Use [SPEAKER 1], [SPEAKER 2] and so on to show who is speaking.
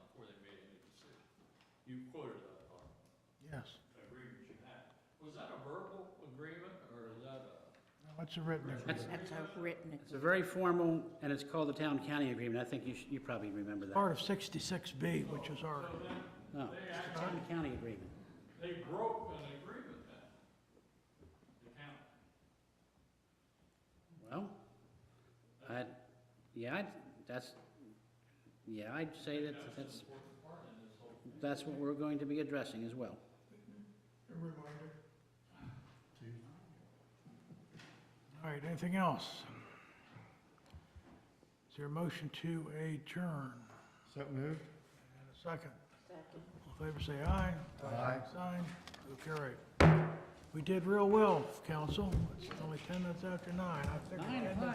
[SPEAKER 1] What's a written agreement?
[SPEAKER 2] That's a written
[SPEAKER 3] It's a very formal, and it's called the town-county agreement. I think you, sh- you probably remember that.
[SPEAKER 1] Part of 66B, which is our,
[SPEAKER 3] No, it's the town-county agreement.
[SPEAKER 4] They broke an agreement then, the county.
[SPEAKER 3] Well, I, yeah, I'd, that's, yeah, I'd say that that's, that's what we're going to be addressing as well.
[SPEAKER 1] all right, anything else? Is there a motion to adjourn?
[SPEAKER 5] So moved?
[SPEAKER 1] And a second.
[SPEAKER 2] second.
[SPEAKER 1] All in favor, say aye.
[SPEAKER 5] Aye.
[SPEAKER 1] Sign, so carried. We did real well, council. It's only 10 minutes after nine. I think we're
[SPEAKER 3] Nine
[SPEAKER 1] getting-
[SPEAKER 3] o'clock.